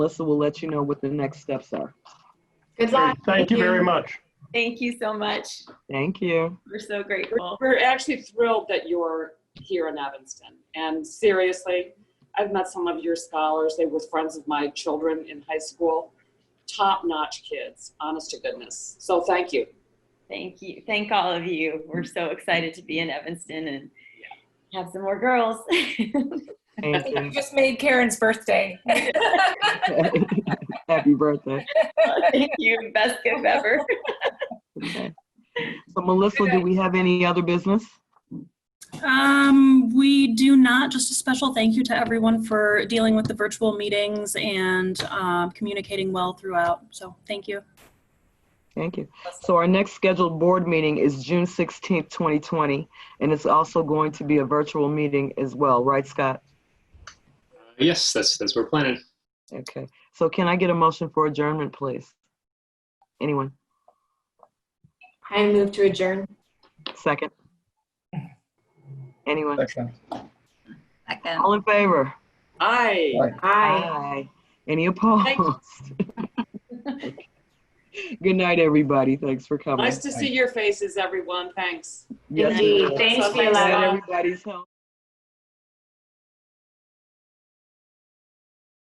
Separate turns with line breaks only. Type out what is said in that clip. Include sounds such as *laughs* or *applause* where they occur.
Melissa will let you know what the next steps are.
Good
Okay,
luck.
Thank you very much.
Thank you so much.
Thank
*laughs*
you.
We're so
We're-
grateful.
We're actually thrilled that you're here in Evanston. And seriously, I've met some of your scholars. They were friends of my children in high school. Top-notch kids, honest to goodness. So thank you.
Thank you. Thank all of you. We're so excited to be in Evanston and have some more girls. *laughs*
Thank
You
you.
just made Karen's birthday.
*laughs* Happy birthday.
Thank you. Best gift ever.
Okay. So Melissa, do we have any other business?
Um, we do not. Just a special thank you to everyone for dealing with the virtual meetings and um, communicating well throughout. So thank you.
Thank you. So our next scheduled board meeting is June 16th, 2020, and it's also going to be a virtual meeting as well, right, Scott?
Uh, Yes, that's, that's what we're planning.
Okay. So can I get a motion for adjournment, please? Anyone?
I move to adjourn.
Second? Anyone?
Excellent.
Second.
All in favor?
Aye.
Aye.
Aye. Any opposed? *laughs* Good night, everybody. Thanks for coming.
Nice to see your faces, everyone. Thanks.
Yes,
Indeed.
ma'am.
Thanks,
Thanks,
Glad
Kayla.
Kayla.
everybody's home.